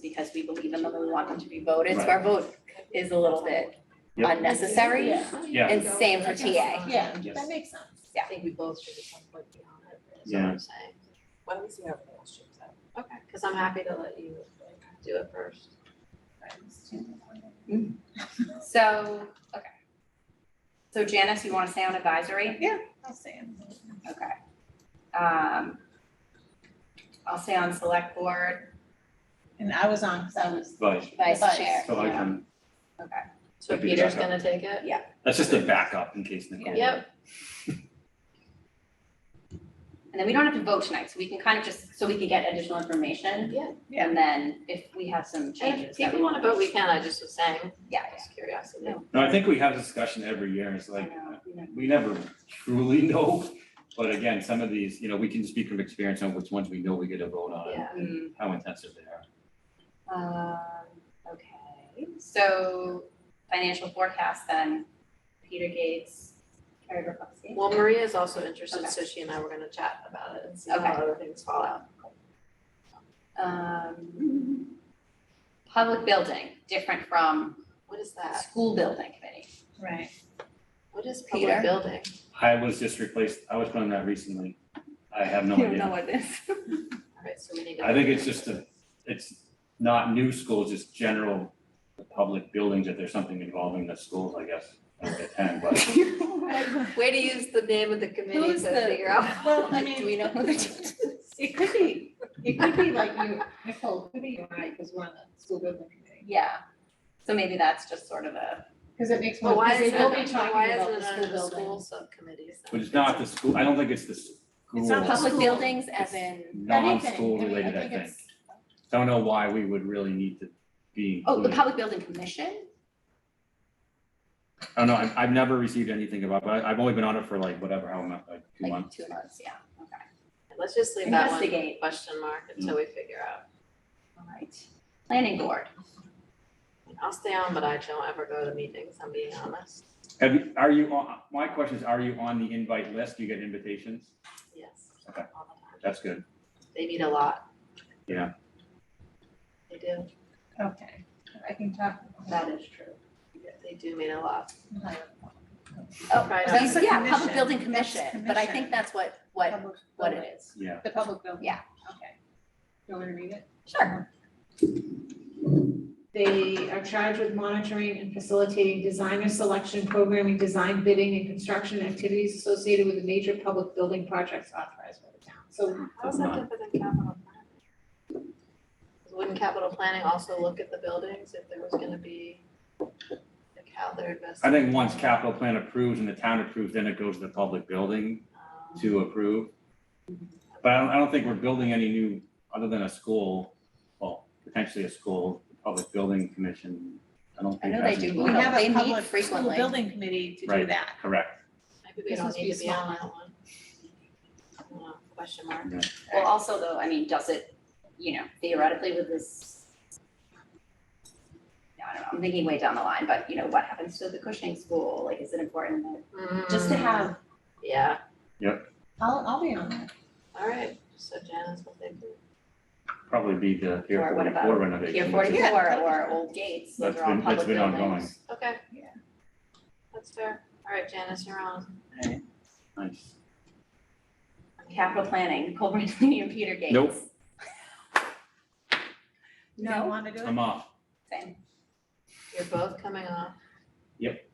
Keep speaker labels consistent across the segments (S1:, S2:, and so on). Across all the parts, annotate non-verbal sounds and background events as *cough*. S1: because we believe in them and we want them to be voted, so our vote is a little bit
S2: Yep.
S1: unnecessary.
S2: Yeah.
S1: And same for TA.
S3: Yeah,
S2: Yes.
S3: that makes sense.
S1: Yeah.
S4: I think we both should at some point be on it, is what
S2: Yeah.
S4: I'm saying.
S3: Why don't we see how it all shapes out?
S4: Okay, because I'm happy to let you do it first.
S1: So, okay. So Janice, you want to stay on advisory?
S3: I'll say it.
S1: Okay. Um, I'll stay on select board,
S3: And I was on, because I was,
S2: Vice.
S1: vice
S3: Vice.
S1: chair.
S2: So I can,
S4: So
S2: That'd be the
S4: Peter's
S2: backup.
S4: gonna take it?
S2: that's just a backup in case Nicole.
S4: Yep.
S1: And then we don't have to vote tonight, so we can kind of just, so we can get additional information.
S4: Yeah.
S3: Yeah.
S1: And then if we have some
S4: And
S1: changes.
S4: if
S1: that
S4: people wanna vote, we can, I just was saying,
S1: Yeah,
S4: just curiosity.
S1: No.
S2: No, I think we have discussion every year. It's
S1: yeah, I
S2: like,
S1: know, you know.
S2: we never truly *laughs* know. But again, some of these, you know, we can speak from experience on which ones we know we get a vote on and
S4: Yeah.
S1: Mm,
S2: how intensive they are.
S1: um, okay, so financial forecast then, Peter Gates, Carrie Burkowski.
S4: Well, Maria is also interested,
S1: Okay.
S4: so she and I were gonna chat about it and see how other things fall out.
S1: Um, public building, different from uh,
S4: What is that?
S1: school building committee.
S4: *laughs*
S3: right.
S4: What is
S1: Peter?
S4: public building?
S2: I was just replaced, I was put on that recently. I have no idea.
S1: what this.
S4: Alright, so we need to.
S2: I think it's just a, it's not new schools, it's general public buildings, if there's something involving the schools, I guess. I don't attend, but
S4: Way to use the name of the *laughs* committee
S3: Who's
S4: to
S3: the-
S4: figure out.
S1: *laughs*
S3: *laughs* Well, I
S4: *laughs*
S3: mean-
S4: Do we know who the?
S3: It could be, it could be like you, Nicole, it could be you and I, because we're on the school building committee.
S1: Yeah, so maybe that's just sort of a,
S3: Because it makes
S4: Well,
S3: more,
S4: why
S3: because
S4: is it,
S3: they will be
S4: on- why
S3: talking
S4: is
S3: about
S4: it
S3: the school
S4: under the
S3: building.
S4: school subcommittees? then?
S2: but it's not the school, I don't think it's the school.
S3: It's not
S1: public
S3: School.
S1: buildings as in,
S2: Non-school
S3: Anything, I mean,
S2: related, I
S3: think
S2: think.
S3: it's-
S2: Don't know why we would really need to be
S1: oh, the
S2: included.
S1: public building commission?
S2: I don't know, Oh, I've, I've never received anything about, but I- I've only been on it for like whatever, how much, like two
S1: Like
S2: months.
S1: two months, yeah, okay,
S4: Let's just leave that one
S1: Investigate.
S4: question mark until we figure out.
S1: all right. Planning board,
S4: I'll stay on, but I don't ever go to meetings, I'm being honest.
S2: Have you, are you, on- my question is, are you on the invite list? Do you get invitations?
S4: Yes.
S2: Okay.
S4: all the time.
S2: That's good.
S4: They meet a lot.
S2: Yeah.
S4: They do,
S3: Okay, I can talk.
S4: That
S3: is true.
S4: they do meet a lot.
S1: Oh,
S4: Right on.
S3: that's a
S1: yeah, public
S3: commission.
S1: building
S3: That's
S1: commission, but I think
S3: commission.
S1: that's what, what,
S3: Public
S1: what
S3: building.
S1: it is.
S2: Yeah.
S3: The public building?
S1: Yeah.
S3: Okay. Do you want me to read it?
S1: Sure.
S3: They are charged with monitoring and facilitating designer selection, programming, design bidding, and construction activities associated with the major public building projects authorized by the town. So
S4: How is that different than capital planning? Wouldn't capital planning also look at the buildings if there was gonna be, like how they're investing?
S2: I think once capital plan approves and the town approves, then it goes to the public building
S4: Um,
S2: to approve. But I don't, I don't think we're building any new, other than a school, well, potentially a school, public building commission. I don't
S1: I
S2: think
S1: know
S2: that's.
S1: they do.
S2: in-
S1: We have They meet frequently.
S3: building committee to
S2: Right.
S3: that.
S2: Correct.
S4: Maybe we
S3: This
S4: don't
S3: must be
S4: need to
S3: a
S4: be
S3: small
S4: on that one. I don't know, Question mark.
S1: Well, also though, I mean, does it, you know, theoretically with this. I don't know, I'm thinking way down the line, but you know, what happens to the Cushing school? Like, is it important that, just to
S4: Mm,
S1: have,
S4: Yeah,
S3: I'll, I'll be on that.
S4: all right, so Janice, what they do.
S2: Probably be the Pier
S1: Or what about
S2: forty-four renovation.
S1: Pier
S2: which is-
S3: Yeah.
S1: forty-four or Old Gates, those
S2: That's
S1: are all
S2: been- that's
S1: public buildings.
S2: been ongoing.
S4: Okay.
S3: Yeah.
S4: That's fair. All right, Janice, you're on.
S2: Nice.
S1: Capital planning, Nicole Brantley and Peter Gates.
S2: Nope.
S3: You
S1: No,
S3: want to do it?
S2: I'm off.
S1: same,
S4: You're both coming off.
S2: Yep.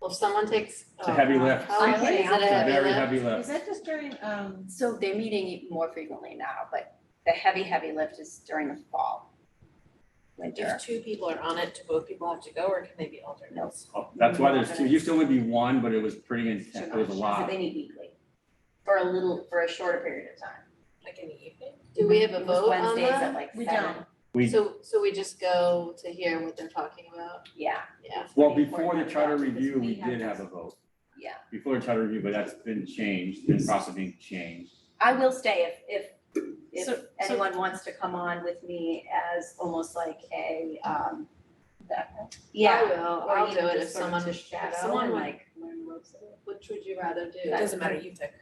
S4: Well, if someone takes.
S2: It's a heavy
S4: oh,
S2: lift.
S4: oh,
S3: I'm
S4: really? Is it a
S3: kidding.
S2: It's a
S4: heavy
S2: very
S4: lift?
S2: heavy lift.
S3: Is that just during, um,
S1: so they're meeting more frequently now, but the heavy, heavy lift is during the fall. Winter,
S4: If two people are on it, do both people have to go or can they be alternates?
S2: Oh, That's why there's two, it used to only be one, but it was pretty intense, it was a
S1: So
S2: lot.
S1: they meet weekly, for a little, for a shorter period of time.
S4: Like in the evening? Do we have a
S1: It was
S4: vote on
S1: Wednesdays at
S4: that?
S1: like
S3: We
S1: seven.
S3: don't.
S2: We-
S4: So, so we just go to hear what they're talking about?
S1: Yeah,
S4: Yeah.
S2: Well, before the
S1: Important
S2: charter
S1: because
S2: review,
S1: we
S2: we
S1: have
S2: did
S1: to-
S2: have a vote,
S1: yeah.
S2: before the charter review, but that's been changed, been possibly changed.
S1: I will stay if, if, if
S3: So- so-
S1: anyone wants to come on with me as almost like a, um, that-
S4: I
S1: yeah.
S4: will,
S1: or
S4: I'll
S1: even
S4: do it if
S1: just sort of
S4: someone,
S1: to
S4: if
S1: shadow
S4: someone
S1: and
S4: would,
S1: like learn the ropes of it.
S4: which would you rather do?
S1: That's
S5: Doesn't matter, you pick.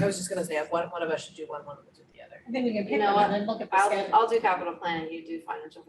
S5: I was just gonna say, if one, one of us should do one, one will do the other. I think we can
S4: You
S5: pick
S4: know
S5: one
S4: what?
S5: and then look at the schedule.
S4: I'll, I'll do capital planning, you do financial